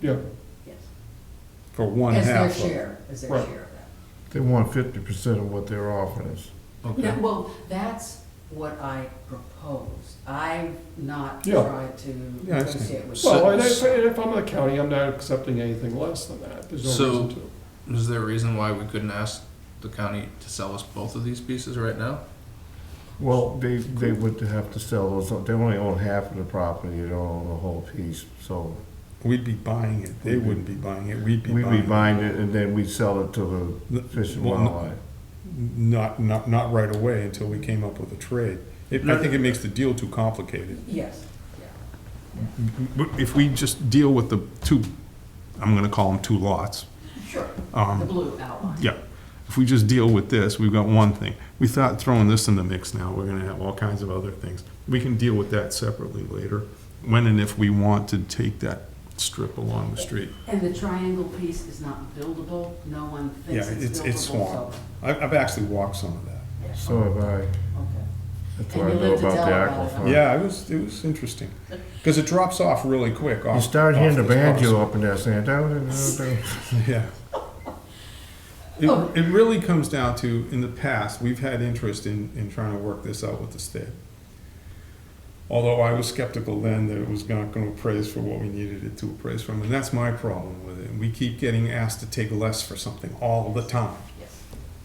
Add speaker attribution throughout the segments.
Speaker 1: Yeah,
Speaker 2: yes.
Speaker 3: for one
Speaker 2: As
Speaker 3: half
Speaker 2: their
Speaker 3: of.
Speaker 2: share, as their
Speaker 1: Right.
Speaker 2: share of that.
Speaker 4: They want fifty percent of what they're offering us.
Speaker 3: Okay,
Speaker 2: No, well, that's what I propose. I've not
Speaker 1: Yeah.
Speaker 2: tried to
Speaker 3: Yeah, I see.
Speaker 2: negotiate with.
Speaker 1: well,
Speaker 5: So-
Speaker 1: and if, and if I'm the county, I'm not accepting anything less than that, there's no
Speaker 5: So-
Speaker 1: reason to.
Speaker 5: Is there a reason why we couldn't ask the county to sell us both of these pieces right now?
Speaker 4: Well, they, they would have to sell those, they only own half of the property, they don't own the whole piece, so
Speaker 3: we'd be buying it, they wouldn't be buying it, Mm-hmm. we'd be
Speaker 4: we'd be
Speaker 3: buying it.
Speaker 4: buying it and then we'd sell it to the Fish and
Speaker 3: Well, n-
Speaker 4: Wildlife.
Speaker 3: Not, not, not right away until we came up with a trade. It- I think it makes the deal too complicated.
Speaker 2: Yes,
Speaker 3: If we just deal with the two, I'm gonna call them two lots,
Speaker 2: sure,
Speaker 3: um,
Speaker 2: the blue outline.
Speaker 3: Yeah, if we just deal with this, we've got one thing. We thought throwing this in the mix now, we're gonna have all kinds of other things. We can deal with that separately later, when and if we want to take that strip along the street.
Speaker 2: And the triangle piece is not buildable, no one
Speaker 3: Yeah,
Speaker 2: thinks it's
Speaker 3: it's,
Speaker 2: buildable,
Speaker 3: it's
Speaker 2: so.
Speaker 3: swamp. I've, I've actually walked some of that.
Speaker 2: yeah,
Speaker 4: So have I,
Speaker 2: Okay.
Speaker 4: that's
Speaker 2: And
Speaker 4: what I
Speaker 2: you
Speaker 4: know
Speaker 2: live to
Speaker 4: about the
Speaker 2: tell about
Speaker 4: aquifer.
Speaker 2: it,
Speaker 3: Yeah, it was, it was interesting, because it drops off really quick off.
Speaker 4: You start hearing
Speaker 3: off this
Speaker 4: the banjo up in there saying, "Da, da, da, da."
Speaker 3: Yeah. It, it really comes down to, in the past, we've had interest in, in trying to work this out with the state. Although I was skeptical then that it was not gonna appraise for what we needed it to appraise from, and that's my problem with it. We keep getting asked to take less for something all the time.
Speaker 2: Yes.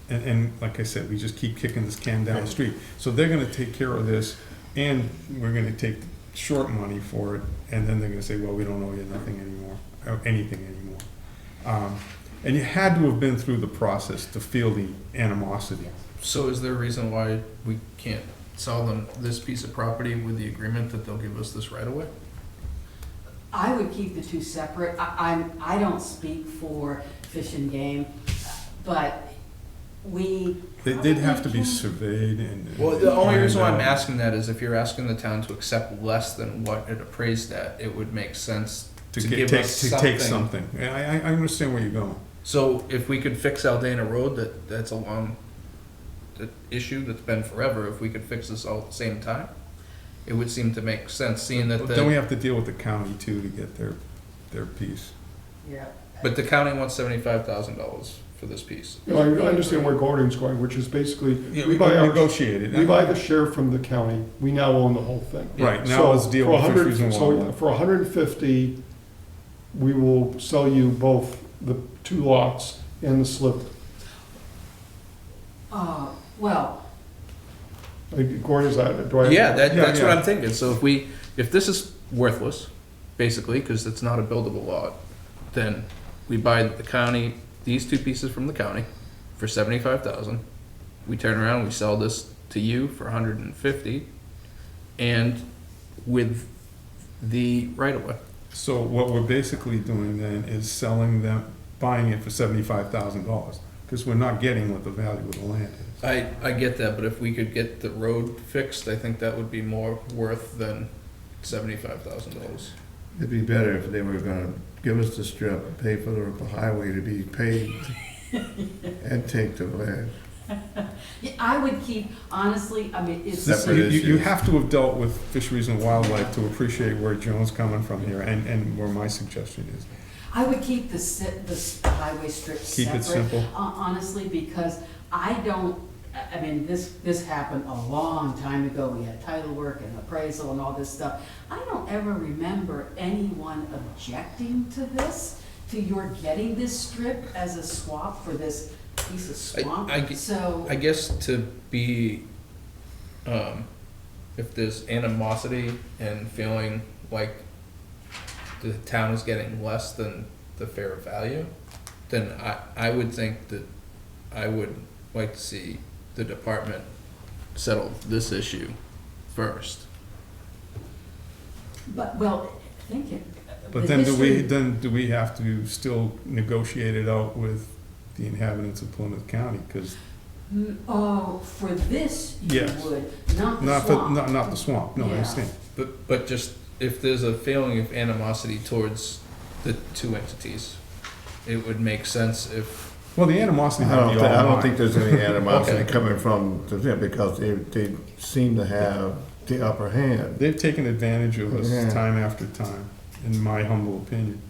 Speaker 3: And, and like I said, we just keep kicking this can down the street. So they're gonna take care of this, and we're gonna take short money for it, and then they're gonna say, well, we don't owe you nothing anymore, uh, anything anymore. Um, And you had to have been through the process to feel the animosity.
Speaker 5: So is there a reason why we can't sell them this piece of property with the agreement that they'll give us this right away?
Speaker 2: I would keep the two separate. I, I'm, I don't speak for Fish and Game, but we.
Speaker 3: They did have to
Speaker 2: probably
Speaker 3: be
Speaker 2: can't-
Speaker 3: surveyed and.
Speaker 5: Well, the only reason why I'm
Speaker 3: and, uh,
Speaker 5: asking that is if you're asking the town to accept less than what it appraised at, it would make sense to
Speaker 3: get-
Speaker 5: give
Speaker 3: take-
Speaker 5: us
Speaker 3: To take
Speaker 5: something.
Speaker 3: something. Yeah, I, I, I understand where you're going.
Speaker 5: So if we could fix Aldana Road, that, that's a long uh, issue that's been forever, if we could fix this all at the same time, it would seem to make sense, seeing that
Speaker 3: But Then we
Speaker 5: the,
Speaker 3: have to deal with the county too to get their, their piece.
Speaker 2: Yeah.
Speaker 5: but the county wants seventy-five thousand dollars for this piece.
Speaker 1: No, I I understand where Gordon's going, which is basically,
Speaker 3: Yeah,
Speaker 1: we
Speaker 3: we
Speaker 1: buy,
Speaker 3: can
Speaker 1: our-
Speaker 3: negotiate it.
Speaker 1: we buy the share from the county, we now own the whole thing.
Speaker 3: Right,
Speaker 1: So
Speaker 3: now let's deal
Speaker 1: for
Speaker 3: with this
Speaker 1: 100
Speaker 3: reason
Speaker 1: So
Speaker 3: why.
Speaker 1: for hundred and fifty, we will sell you both the two lots and the slip.
Speaker 2: Uh, well,
Speaker 1: Like, Gordon, is that, do I?
Speaker 5: Yeah, that,
Speaker 3: Yeah,
Speaker 5: that's what
Speaker 3: yeah.
Speaker 5: I'm thinking, so if we, if this is worthless, basically, cause it's not a buildable lot, then we buy the county, these two pieces from the county for seventy-five thousand. We turn around, we sell this to you for hundred and fifty, and with the right-of-way.
Speaker 3: So what we're basically doing then is selling them, buying it for seventy-five thousand dollars, because we're not getting what the value of the land is.
Speaker 5: I, I get that, but if we could get the road fixed, I think that would be more worth than seventy-five thousand dollars.
Speaker 4: It'd be better if they were gonna give us the strip, pay for the highway to be paved, and take the land.
Speaker 2: yeah, I would keep, honestly, I mean, it's.
Speaker 3: This-
Speaker 4: Separate
Speaker 3: You, you- you
Speaker 4: issues.
Speaker 3: have to have dealt with fisheries and wildlife to appreciate where Joan's coming from here, and, and where my suggestion is.
Speaker 2: I would keep the, si- the s- highway strip
Speaker 3: Keep
Speaker 2: separate,
Speaker 3: it simple.
Speaker 2: hon- honestly, because I don't, I I mean, this, this happened a long time ago, we had title work and appraisal and all this stuff. I don't ever remember anyone objecting to this, to your getting this strip as a swap for this piece of
Speaker 5: I- I
Speaker 2: swamp,
Speaker 5: get-
Speaker 2: so.
Speaker 5: I guess to be, um, if there's animosity and feeling like the town is getting less than the fair value, then I, I would think that I would like to see the department settle this issue first.
Speaker 2: But, well, thinking.
Speaker 3: But then do we, then do we have to still negotiate it out with the inhabitants of Plymouth County? Because,
Speaker 2: Oh, for this, you
Speaker 3: Yes.
Speaker 2: would, not the
Speaker 3: not, the-
Speaker 2: swamp.
Speaker 3: not, not the swamp, no, I
Speaker 2: Yeah.
Speaker 3: understand.
Speaker 5: But, but just if there's a feeling of animosity towards the two entities, it would make sense if
Speaker 3: Well, the animosity
Speaker 4: I
Speaker 3: might
Speaker 4: don't,
Speaker 3: be
Speaker 4: thi-
Speaker 3: all
Speaker 4: I don't
Speaker 3: mine.
Speaker 4: think there's any animosity
Speaker 5: Okay.
Speaker 4: coming from them, because they, they seem to have the upper hand.
Speaker 3: They've taken advantage of us
Speaker 4: Yeah.
Speaker 3: time after time, in my humble opinion.